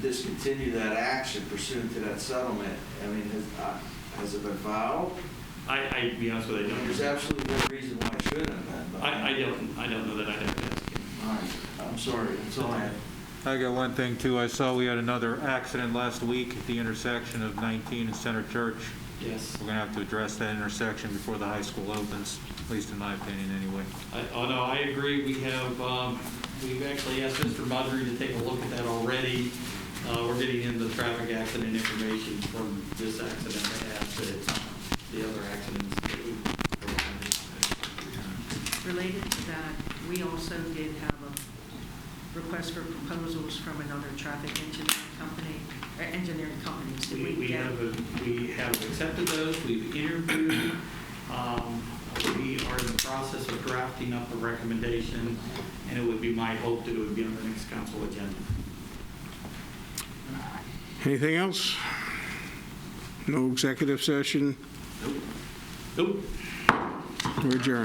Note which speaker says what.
Speaker 1: discontinue that action pursuant to that settlement, I mean, has, uh, has it been filed?
Speaker 2: I, I, to be honest with you, I
Speaker 1: There's
Speaker 2: don't,
Speaker 1: absolutely no reason why it shouldn't have been. but-
Speaker 2: I, I don't, I don't know that I have to ask him.
Speaker 1: All right, I'm sorry, that's all I have.
Speaker 3: I got one thing too. I saw we had another accident last week at the intersection of 19 and Center Church.
Speaker 2: Yes.
Speaker 3: We're gonna have to address that intersection before the high school opens, at least in my opinion, anyway.
Speaker 2: I, oh, no, I agree. We have, um, we've actually asked Mr. Mudry to take a look at that already. Uh, we're getting into traffic accident information from this accident that happened, the other accidents that we.
Speaker 4: Related to that, we also did have a request for proposals from another traffic engineering company, or engineering companies. Did
Speaker 2: We, we
Speaker 4: get-
Speaker 2: have, a- we have accepted those, we've interviewed, um, we are in the process of drafting up a recommendation, and it would be my hope that it would be on the next council agenda.
Speaker 5: Anything else? No executive session,
Speaker 2: Oop.
Speaker 5: we're adjourned.